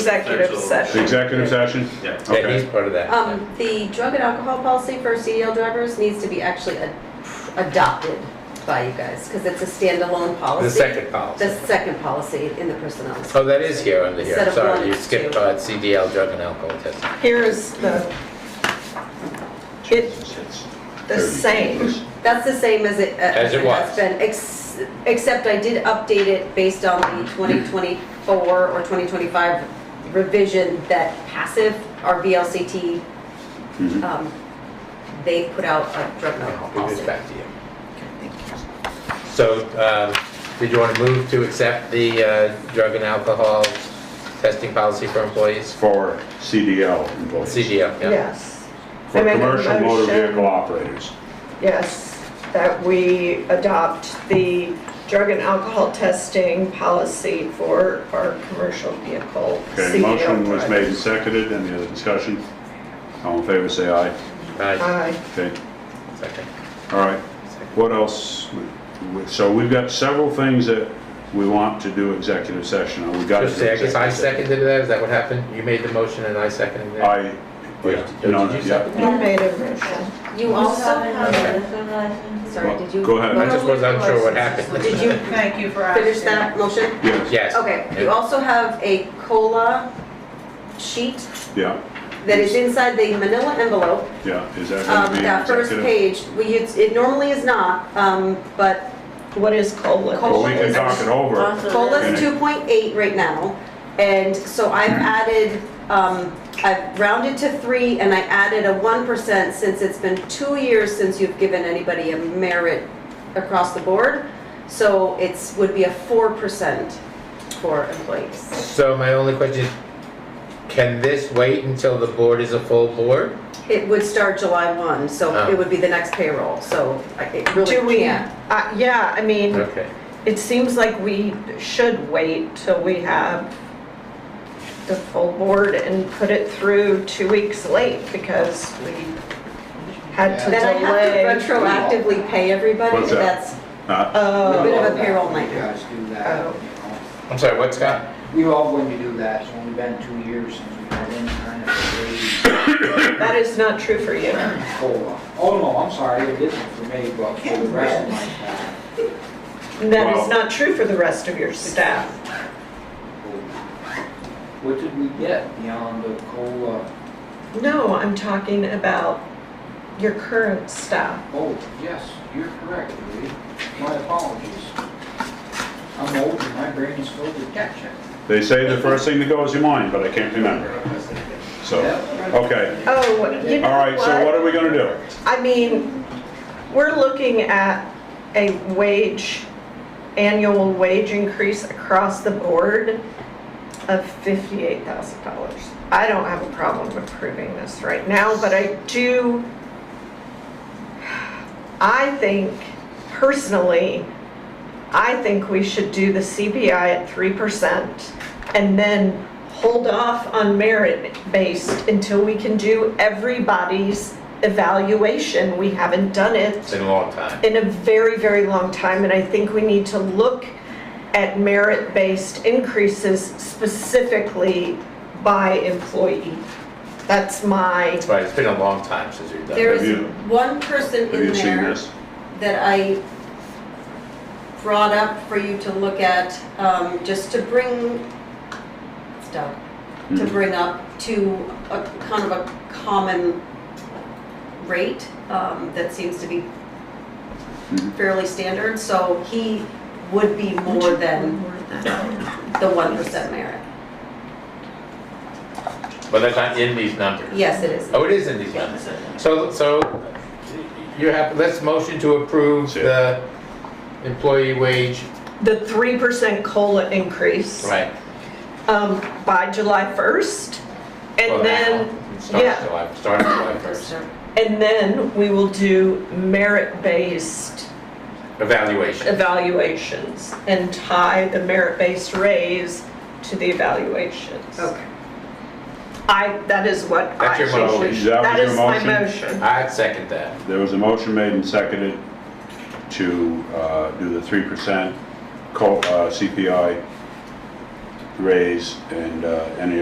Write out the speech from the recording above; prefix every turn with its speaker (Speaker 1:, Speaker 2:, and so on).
Speaker 1: Executive
Speaker 2: Potential-
Speaker 1: session.
Speaker 3: The executive session?
Speaker 2: Yeah.
Speaker 4: Yeah, he's
Speaker 3: Okay.
Speaker 4: part of that.
Speaker 5: Um, the drug and alcohol policy for CDL drivers needs to be actually ad- adopted by you guys, because it's a standalone policy.
Speaker 4: The second
Speaker 5: The
Speaker 4: policy.
Speaker 5: second policy in the personnel.
Speaker 4: Oh, that is here under here.
Speaker 5: Instead of
Speaker 4: Sorry,
Speaker 5: one,
Speaker 4: you
Speaker 5: it's
Speaker 4: skipped
Speaker 5: two.
Speaker 4: uh, CDL, drug and alcohol testing.
Speaker 1: Here is the, it's the same.
Speaker 5: That's the same as it. uh,
Speaker 4: As it was.
Speaker 5: has been, ex- Except I did update it based on the 2024 or 2025 revision that passive, our VLCT,
Speaker 4: Mm-hmm.
Speaker 3: Mhm.
Speaker 5: um, they put out a drug and alcohol
Speaker 4: Give this
Speaker 5: policy.
Speaker 4: back to you. So, um, did you want to move to accept the uh, drug and alcohol testing policy for employees?
Speaker 3: For CDL employees.
Speaker 4: CDL, yeah.
Speaker 1: Yes. I
Speaker 3: For
Speaker 1: make a
Speaker 3: commercial motor
Speaker 1: motion.
Speaker 3: vehicle operators.
Speaker 1: Yes, that we adopt the drug and alcohol testing policy for our commercial vehicle. E
Speaker 3: Okay,
Speaker 1: CDL
Speaker 3: motion was made and
Speaker 1: drivers.
Speaker 3: seconded, any other discussion? All in favor, say aye.
Speaker 5: Uh,
Speaker 4: Aye.
Speaker 1: Aye.
Speaker 3: Okay,
Speaker 4: Second.
Speaker 3: all right.
Speaker 4: Second.
Speaker 3: What else? We- So we've got several things that we want to do executive session, and we got to
Speaker 4: Just
Speaker 3: do
Speaker 4: say, I guess I
Speaker 3: executive session.
Speaker 4: seconded that, is that what happened? You made the motion and I seconded it?
Speaker 3: I,
Speaker 4: Or
Speaker 3: yeah,
Speaker 4: did- or
Speaker 3: no,
Speaker 4: did you
Speaker 3: yeah.
Speaker 4: second it?
Speaker 1: You made a motion.
Speaker 5: You also have,
Speaker 3: Well,
Speaker 5: sorry, did you?
Speaker 3: Go ahead,
Speaker 4: I just was unsure what happened.
Speaker 5: Did you
Speaker 6: Thank you for asking.
Speaker 5: finish that motion?
Speaker 3: yes,
Speaker 4: Yes.
Speaker 5: Okay, you also have a COLA sheet
Speaker 3: yeah,
Speaker 5: that is inside the manila envelope.
Speaker 3: yeah, is that
Speaker 5: Um,
Speaker 3: going to be
Speaker 5: That first
Speaker 3: executive?
Speaker 5: page, we, it's- it normally is not, um, but
Speaker 1: What is COLA?
Speaker 3: Well, we
Speaker 5: COLA
Speaker 3: can
Speaker 5: is-
Speaker 3: talk it over,
Speaker 5: COLA's
Speaker 3: Okay.
Speaker 5: 2.8 right now, and so I've added, um, I've rounded to three, and I added a 1% since it's been two years since you've given anybody a merit across the board, so it's, would be a 4% for employees.
Speaker 4: So my only question is, can this wait until the board is a full board?
Speaker 5: It would start July 1, so
Speaker 3: Oh.
Speaker 5: it would be the next payroll, so I- it really
Speaker 1: Do we,
Speaker 5: can't.
Speaker 1: uh, yeah, I mean,
Speaker 4: Okay.
Speaker 1: it seems like we should wait till we have the full board and put it through two weeks late because we had to
Speaker 5: Then I
Speaker 1: delay.
Speaker 5: have to retroactively pay everybody,
Speaker 3: What's that?
Speaker 5: that's
Speaker 3: Uh,
Speaker 1: Oh.
Speaker 5: a bit of a payroll nightmare.
Speaker 7: guys do that. you know.
Speaker 4: I'm sorry, what, Scott?
Speaker 7: We all going to do that, it's only been two years since we've had any kind of a
Speaker 1: That is not true for you.
Speaker 7: COLA. Oh, no, I'm sorry, it isn't for me, but for the rest of my staff.
Speaker 1: That is
Speaker 3: Well-
Speaker 1: not true for the rest of your staff.
Speaker 7: What did we get beyond the COLA?
Speaker 1: No, I'm talking about your current staff.
Speaker 7: Oh, yes, you're correct, Louis. My apologies. I'm old and my brain is filled with ketchup.
Speaker 3: They say the first thing that goes to your mind, but I can't remember, so, okay.
Speaker 1: Oh, you know
Speaker 3: All right, so what are we going to do?
Speaker 1: I mean, we're looking at a wage, annual wage increase across the board of $58,000. I don't have a problem approving this right now, but I do, I think, personally, I think we should do the CBI at 3% and then hold off on merit-based until we can do everybody's evaluation. We haven't done
Speaker 4: It's
Speaker 1: it
Speaker 4: been a long time.
Speaker 1: in a very, very long time, and I think we need to look at merit-based increases specifically by employee. That's my,
Speaker 4: Right, it's been a long time since we've done
Speaker 5: There
Speaker 4: it.
Speaker 3: Have
Speaker 5: is
Speaker 3: you-
Speaker 5: one person
Speaker 3: Have
Speaker 5: in
Speaker 3: you seen
Speaker 5: there
Speaker 3: this?
Speaker 5: that I brought up for you to look at, um, just to bring, it's Doug, to
Speaker 3: Mhm.
Speaker 5: bring up to a kind of a common rate, um, that seems to be
Speaker 3: Mhm.
Speaker 5: fairly standard, so he would be more than the one percent merit.
Speaker 4: But that's not in these numbers.
Speaker 5: Yes, it is.
Speaker 4: Oh, it is in these numbers. So, so you have, let's motion to approve
Speaker 3: Sure.
Speaker 4: the employee wage.
Speaker 1: the 3% COLA increase.
Speaker 4: Right.
Speaker 1: um, by July 1st.
Speaker 4: Well,
Speaker 1: And then,
Speaker 4: it Starts
Speaker 1: yeah.
Speaker 4: July, starts July first.
Speaker 1: and then we will do merit-based
Speaker 4: Evaluation.
Speaker 1: evaluations and tie the merit-based raise to the evaluations.
Speaker 5: Okay.
Speaker 1: I, that is what I
Speaker 4: That's your
Speaker 1: think we
Speaker 4: motion.
Speaker 1: should-
Speaker 3: That was
Speaker 1: That
Speaker 3: your
Speaker 1: is my
Speaker 3: motion?
Speaker 1: motion.
Speaker 4: I'd second that.
Speaker 3: There was a motion made and seconded to uh, do the 3% co- uh, CPI raise and uh, any